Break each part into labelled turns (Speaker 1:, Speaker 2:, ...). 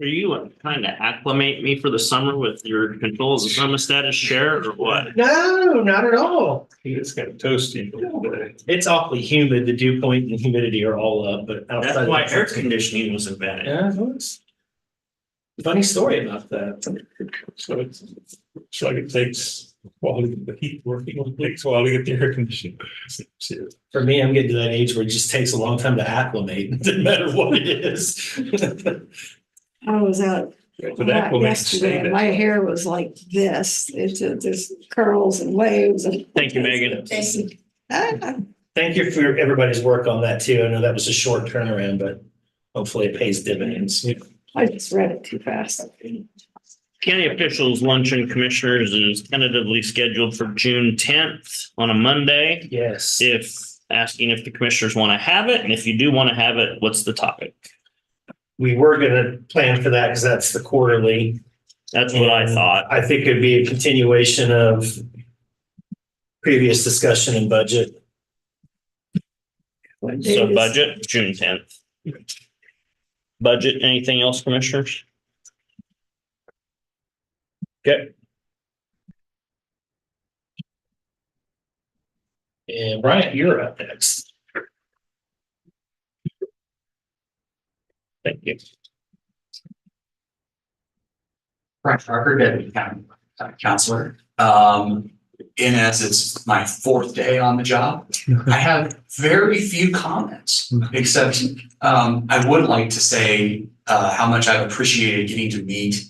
Speaker 1: Are you trying to acclimate me for the summer with your controls and thermostat as chair or what?
Speaker 2: No, not at all.
Speaker 3: It's kind of toasty. uh,
Speaker 2: It's awfully humid. The dew point and humidity are all up, but outside.
Speaker 1: That's
Speaker 2: of
Speaker 1: why
Speaker 2: that-
Speaker 1: air conditioning was invented.
Speaker 2: Yeah, it was. Funny story about that.
Speaker 3: So it's, it's like it takes a while to get the heat working, it takes a while to get the air conditioning. Seriously.
Speaker 2: For me, I'm getting to that age where it just takes a long time to acclimate, no matter what it is.
Speaker 4: I was out
Speaker 3: But that will make it
Speaker 4: yesterday, and my
Speaker 3: stay.
Speaker 4: hair was like this, it's, uh, there's curls and waves and.
Speaker 1: Thank you, Megan.
Speaker 4: Thank you. Ah,
Speaker 2: Thank you for everybody's work on that too. I know that was a short turnaround, but hopefully it pays dividends.
Speaker 4: I just read it too fast.
Speaker 1: County officials luncheon commissioners is tentatively scheduled for June tenth on a Monday.
Speaker 2: Yes.
Speaker 1: If asking if the commissioners want to have it, and if you do want to have it, what's the topic?
Speaker 2: We were gonna plan for that because that's the quarterly.
Speaker 1: That's what I thought.
Speaker 2: I think it'd be a continuation of previous discussion and budget.
Speaker 4: What day
Speaker 1: So
Speaker 4: is-
Speaker 1: budget, June tenth. Budget, anything else, commissioners? Okay,
Speaker 2: And Brian, you're up next.
Speaker 1: thank you.
Speaker 5: Brent Parker, deputy county uh, counselor. Um, in as it's my fourth day on the job, I have very few comments, except um, I would like to say uh, how much I've appreciated getting to meet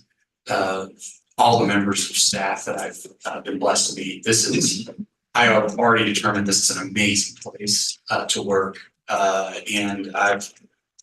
Speaker 5: uh, all the members of staff that I've uh, been blessed to meet. This is, I have already determined this is an amazing place uh, to work. Uh, and I've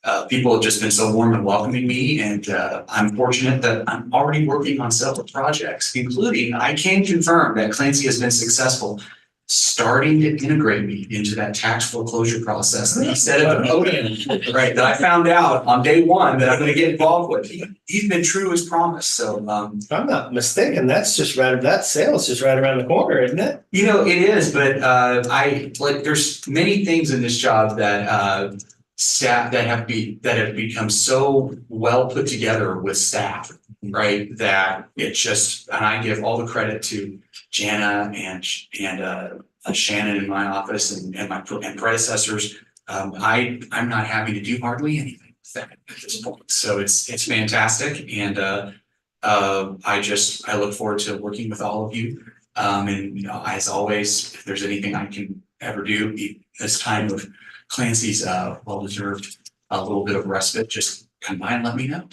Speaker 5: uh, people have just been so warm and welcoming me, and uh, I'm fortunate that I'm already working on several projects, including I can confirm that Clancy has been successful starting to integrate me into that tax foreclosure process that he said at the podium, right? That I found out on day one that I'm going to get involved with. He, he's been true as promised. So um,
Speaker 2: If I'm not mistaken, that's just right, that sale's just right around the corner, isn't it?
Speaker 5: You know, it is, but uh, I like, there's many things in this job that uh, staff that have be, that have become so well put together with staff. Right, that it just, and I give all the credit to Jana and Sh- and uh, uh, Shannon in my office and and my pre- and predecessors. Um, I I'm not having to do hardly anything with that at this point, so it's it's fantastic and uh. Uh, I just, I look forward to working with all of you um, and, you know, as always, if there's anything I can ever do, e- this time of Clancy's, uh, well-deserved, a little bit of respite, just come by and let me know.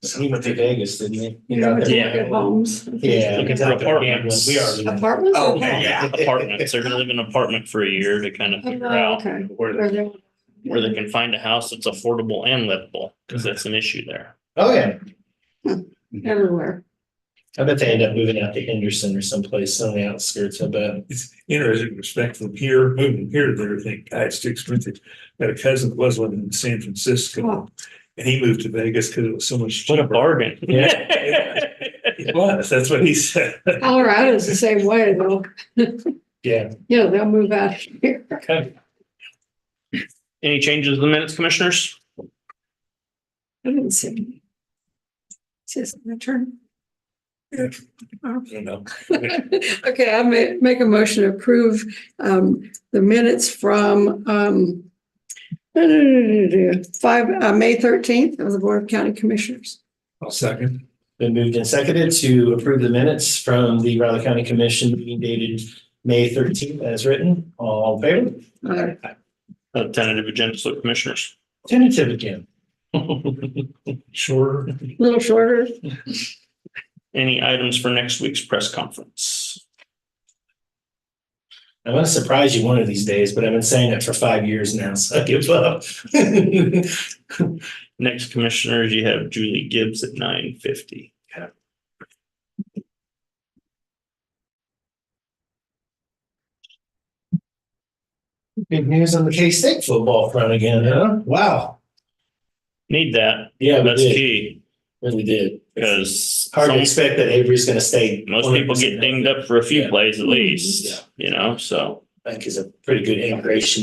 Speaker 2: He went to Vegas, didn't he?
Speaker 4: You know, it's
Speaker 1: Yeah.
Speaker 4: like at homes.
Speaker 2: Yeah.
Speaker 1: Looking for apartments.
Speaker 2: We are.
Speaker 4: Apartments? or
Speaker 5: Oh,
Speaker 4: homes?
Speaker 5: yeah.
Speaker 1: Apartments, they're gonna live in an apartment for a year to kind of figure
Speaker 4: Oh,
Speaker 1: out
Speaker 4: Okay.
Speaker 1: where,
Speaker 4: Or they're-
Speaker 1: where they can find a house that's affordable and livable, because that's an issue there.
Speaker 2: Oh, yeah.
Speaker 4: Everywhere.
Speaker 2: I bet they end up moving out to Henderson or someplace on the outskirts of it.
Speaker 3: It's interesting respect from here, moving here to there, I think, God, it's too expensive. Got a cousin that was living in San Francisco. And he moved to Vegas because it was so much
Speaker 1: What a
Speaker 3: cheaper.
Speaker 1: bargain.
Speaker 3: Yeah. It was, that's what he said.
Speaker 4: Colorado's the same way, though.
Speaker 2: Yeah.
Speaker 4: You know, they'll move out here.
Speaker 2: Okay.
Speaker 1: Any changes to the minutes, commissioners?
Speaker 4: I didn't see. any. It's just my turn.
Speaker 3: Yeah.
Speaker 4: Oh.
Speaker 3: I don't know.
Speaker 4: Okay, I ma- make a motion to approve um the minutes from um. Five, uh, May thirteenth of the Board of County Commissioners.
Speaker 3: I'll second.
Speaker 2: Been moved and seconded to approve the minutes from the Riley County Commission meeting dated May thirteenth as written. All in
Speaker 4: Uh,
Speaker 2: favor?
Speaker 1: Uh, Tentative agenda, so commissioners.
Speaker 2: Tentative again.
Speaker 3: Sure.
Speaker 4: a little shorter,
Speaker 1: Any items for next week's press conference?
Speaker 2: I'm gonna surprise you one of these days, but I've been saying it for five years now, so I give up.
Speaker 1: Next commissioners, you have Julie Gibbs at nine fifty.
Speaker 2: Good news on the K-State football front again, huh? Wow.
Speaker 1: Need that.
Speaker 2: Oh, Yeah, we
Speaker 1: That's
Speaker 2: did.
Speaker 1: key,
Speaker 2: Really did.
Speaker 1: because
Speaker 2: Hard to
Speaker 1: some-
Speaker 2: expect that Avery's gonna stay.
Speaker 1: most people get
Speaker 2: 100%
Speaker 1: dinged up for a few
Speaker 2: Yeah.
Speaker 1: plays at
Speaker 4: Mhm.
Speaker 1: least, you know, so.
Speaker 2: That is a pretty good integration